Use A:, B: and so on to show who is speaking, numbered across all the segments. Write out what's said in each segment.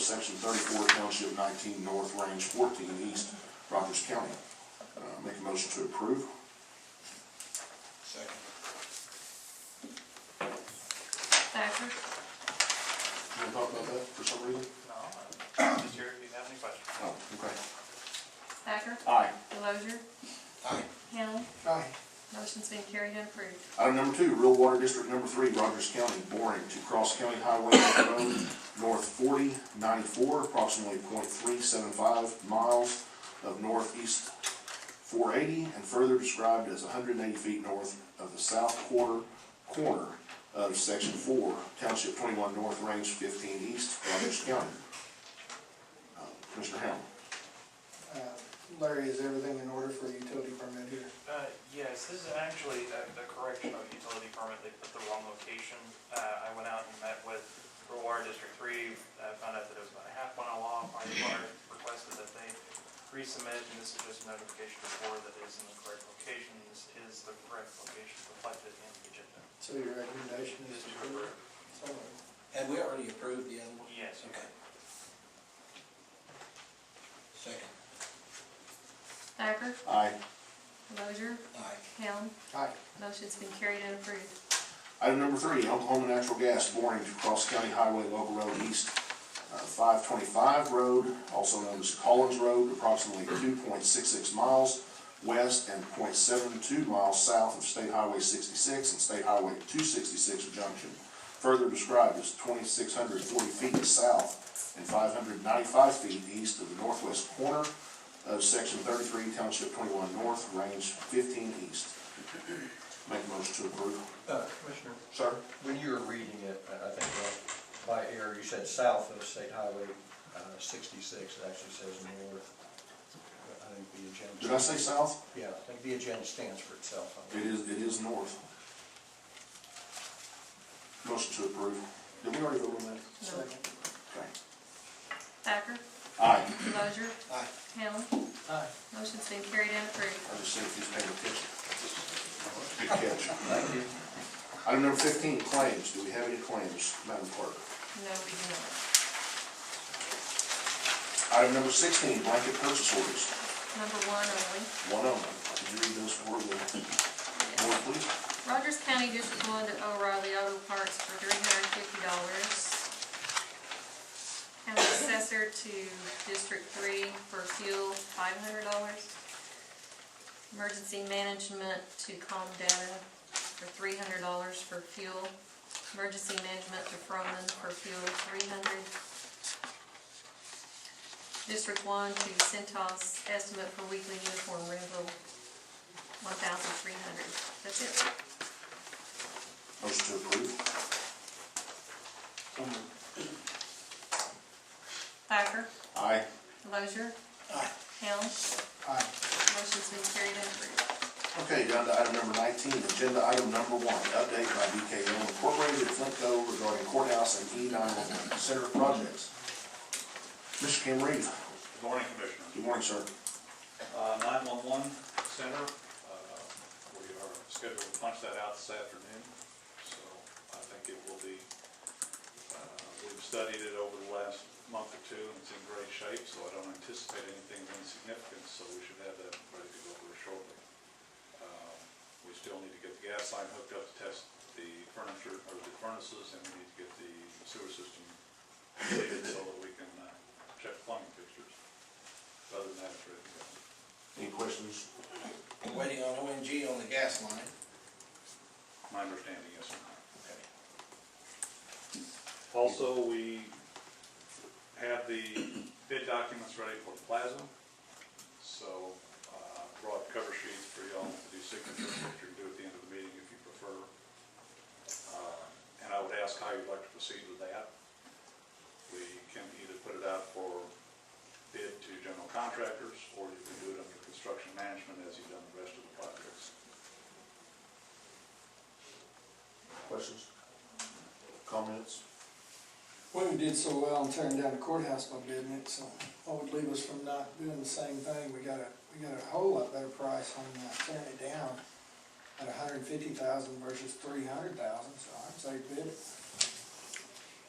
A: section thirty-four, township nineteen, north, range fourteen, east, Rogers County. Uh, Make a motion to approve.
B: Second.
C: Thacker,
A: You want to talk about that for some reason?
D: No, I'm just here if you have any questions.
A: Oh, okay.
C: Thacker,
A: Aye.
C: Delozer,
B: Aye.
C: Hamel,
A: Aye.
C: motion's been carried and approved.
A: Item number two, real water district number three, Rogers County, boring to Cross County Highway Road, north forty ninety-four, approximately 0.375 miles of northeast four eighty, and further described as hundred and eighty feet north of the south quarter corner of section four, township twenty-one north, range fifteen east, Rogers County. Uh, Commissioner Hamlin?
E: Uh, Larry, is everything in order for a utility permit here?
D: Uh, yes, this is actually a, a correction of utility permit, they put the wrong location. Uh, I went out and met with Rural Water District Three, uh, found out that it was about a half mile off, my water requested that they resubmit, and this is just a notification before that it is in the correct location, this is the correct location reflected in the agenda.
E: So your recommendation is to approve? So,
B: Had we already approved the other one?
D: Yes.
B: Okay. Second.
C: Thacker,
A: Aye.
C: Delozer,
B: Aye.
C: Hamel,
E: Aye.
C: motion's been carried and approved.
A: Item number three, Oklahoma Natural Gas boring to Cross County Highway Local Road East, uh, five twenty-five road, also known as Collins Road, approximately two point six six miles west and 0.72 miles south of State Highway sixty-six and State Highway two sixty-six junction. Further described as twenty-six hundred forty feet south and five hundred ninety-five feet east of the northwest corner of section thirty-three, township twenty-one north, range fifteen east. Make a motion to approve.
F: Uh, Commissioner,
A: Sir?
F: when you were reading it, I- I think uh, by error, you said south of State Highway uh, 66, it actually says north. But I think the agenda.
A: Did I say south?
F: Yeah, I think the agenda stands for itself. I
A: It
F: mean.
A: is, it is north. Motion to approve. Did we already vote on that?
E: Second.
A: Okay.
C: Thacker,
A: Aye.
C: Delozer,
B: Aye.
C: Hamel,
E: Aye.
C: motion's been carried and approved.
A: I just said if he's paying attention. Good catch.
F: Thank you.
A: Item number fifteen, claims. Do we have any claims, Madam Clerk?
C: No, we do not.
A: Item number sixteen, blanket purchase orders.
C: Number one only.
A: One of them. Could you read those for the
C: Yes.
A: board, please?
C: Rogers County District One to O'Reilly Auto Parts for three hundred and fifty dollars. County Assessor to District Three for fuel, five hundred dollars. Emergency Management to Calm Data for three hundred dollars for fuel. Emergency Management to Froman for fuel, three hundred. District One to Centos Estimate for Weekly Uniform Rental, one thousand three hundred. dollars That's it.
A: Motion to approve.
C: Thacker,
A: Aye.
C: Delozer.
B: Aye.
C: Helm,
E: Aye.
C: motion's been carried and approved.
A: Okay, down to item number nineteen, agenda item number one, update by BKO Incorporated, Flintco regarding courthouse and E nine center projects. Mr. Kim Reed,
G: Good morning, Commissioner.
A: good morning, sir.
G: Uh, 911 Center, uh, we are scheduled to punch that out this afternoon, so I think it will be, uh, we've studied it over the last month or two, and it's in great shape, so I don't anticipate anything of insignificance, so we should have that ready to go over shortly. Uh, We still need to get the gas line hooked up to test the furniture, or the furnaces, and we need to get the sewer system completed so that we can uh, check plumbing fixtures. Other than that, it's ready to go.
A: Any questions?
B: We're Waiting on ONG on the gas line.
G: My understanding, yes, sir.
B: Okay.
G: Also, we have the bid documents ready for the plaza, so, uh, brought cover sheets for y'all to do signatures, which you can do at the end of the meeting if you prefer. Uh, And I would ask how you'd like to proceed with that. We can either put it out for bid to general contractors, or you can do it under construction management as you've done the rest of the projects.
A: Questions? Comments?
E: Well, we did so well in tearing down the courthouse by bidding it, so that would leave us from not doing the same thing. We got a, we got a whole lot better price on uh, tearing it down at a hundred and fifty thousand versus three hundred thousand, so I'd say bid it.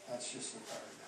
E: That's just a third.